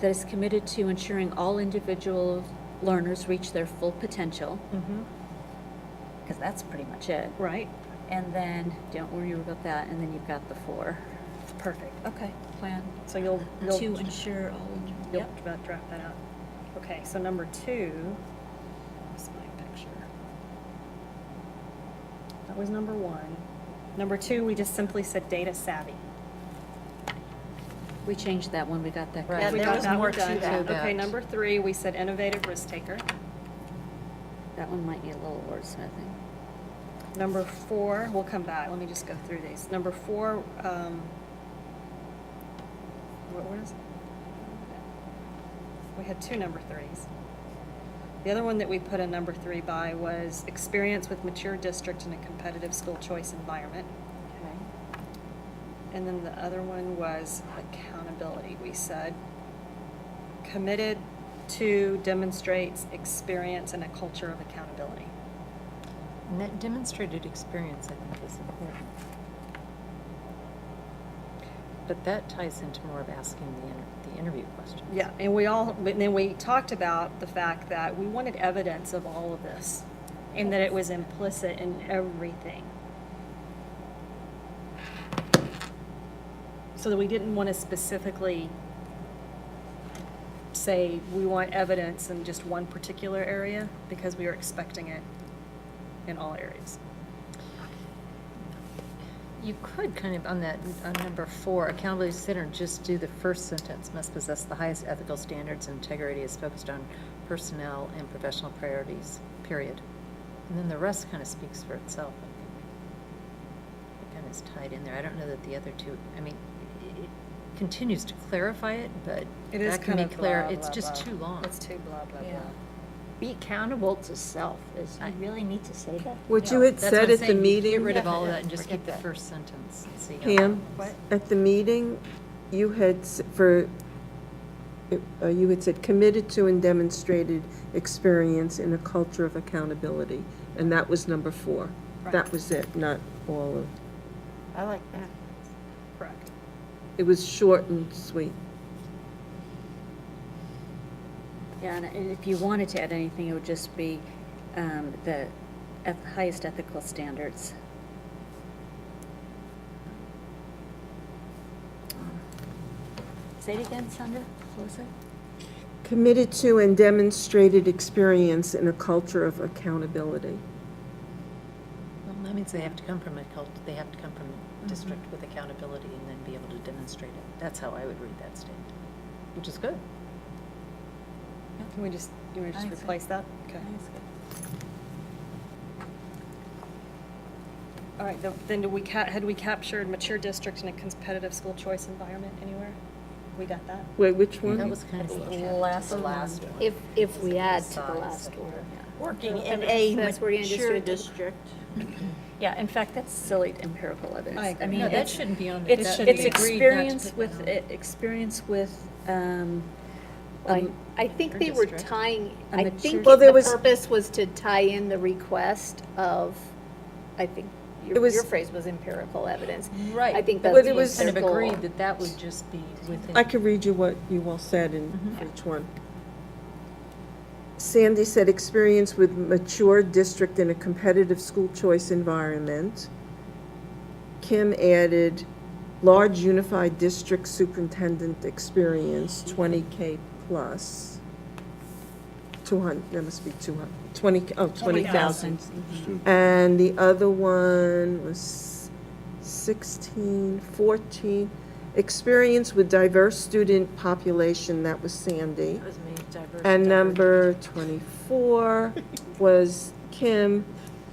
that is committed to ensuring all individual learners reach their full potential, because that's pretty much it. Right, And then, don't worry about that, and then you've got the four. perfect, okay. Plan Oh, So you'll, you'll, to ensure all, you'll yep. dra- draft that out. Okay, so number two, where's my picture? That was number one. Number two, we just simply said data savvy. We changed that one, we got that. Right. covered. We We there got was that one more to done. that. Okay, number three, we said innovative risk taker. That one might need a little wordsmithing. Number four, we'll come back, let me just go through these. Number four, um, what, what is? We had two number threes. The other one that we put a number three by was experience with mature district in a competitive school choice environment. And then the other one was accountability, we said. Committed to demonstrates experience and a culture of accountability. And that demonstrated experience, I think, is important. But that ties into more of asking the, inter- the interview question. Yeah, and we all, and then we talked about the fact that we wanted evidence of all of this and that it was implicit in everything. So that we didn't want to specifically say we want evidence in just one particular area because we were expecting it in all areas. You could kind of, on that, on number four, accountability center, just do the first sentence, must possess the highest ethical standards and integrity is focused on personnel and professional priorities, period. And then the rest kind of speaks for itself, I think. It kind of is tied in there. I don't know that the other two, I mean, it- it continues to clarify it, but It is that can kind be of uh, clear. blah, It's blah, just blah. too long. It's too blah, blah, Yeah. blah. Be accountable to self, is, you really need to say that? What you had That's what I'm said at the saying. Get meeting, rid of all of Yeah, that and just forget keep the that. first sentence. and see how that Pam, goes. at the meeting, you had, s- for, uh, you had said committed to and demonstrated experience in a culture of accountability, and that was number four. That Right. was it, not all of, I like that. Correct. it was short and sweet. Yeah, and- and if you wanted to add anything, it would just be um, the eth- highest ethical standards. Say it again, Sandra, what was it? Committed to and demonstrated experience in a culture of accountability. Well, that means they have to come from a cult, they have to come from a district with accountability and then be able to demonstrate it. That's how I would read that statement, which is good. Can we just, you want to just I see. replace that? Okay. All right, th- then do we ca- had we captured mature district in a competitive school choice environment anywhere? We got that? Wait, which That one? was kind of. The last Mm-hmm. the last one. one. If, if we add to the Size last that- one. Working in a That's where you mature district. Yeah, in fact, that's silly empirical evidence. I agree. mean, No, that it's- shouldn't be on there. It's, That- it's we agreed not to experience put with, that on. e- experience with, um, I, um, I think Or they were district. tying, A I mature- think Well, there the was- purpose was to tie in the request of, I think, It your, was- your phrase was empirical evidence. Right. I think but that's it the we was- Kind of empirical. agreed that that would just be within. I could read you what you all said in each one. Sandy said experience with mature district in a competitive school choice environment. Kim added large unified district superintendent experience, twenty K plus. Two hundred. that must be two hundred. Twenty. oh, twenty thousand. And the other one was 16, 14, experience with diverse student population, that was Sandy. And number 24 was Kim,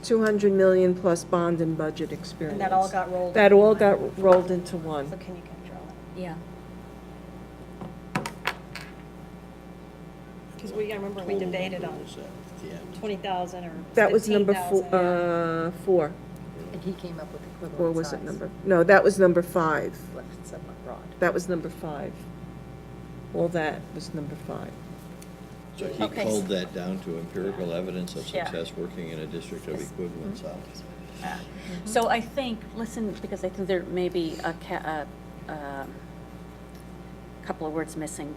200 million plus bond and budget experience. And that all got rolled? That into all one. got rolled into So one. can you control it? yeah. Because we, I remember we debated on twenty thousand or fifteen thousand. That was number four, uh, four, And he came up with equivalent size. or was it number, no, that was number five. Left somewhat broad. That was number five. All that was number five. So he Okay. pulled that down to empirical evidence of Yeah. success working in a district of equivalent size. So I think, listen, because I think there may be a ca- a, um, couple of words missing,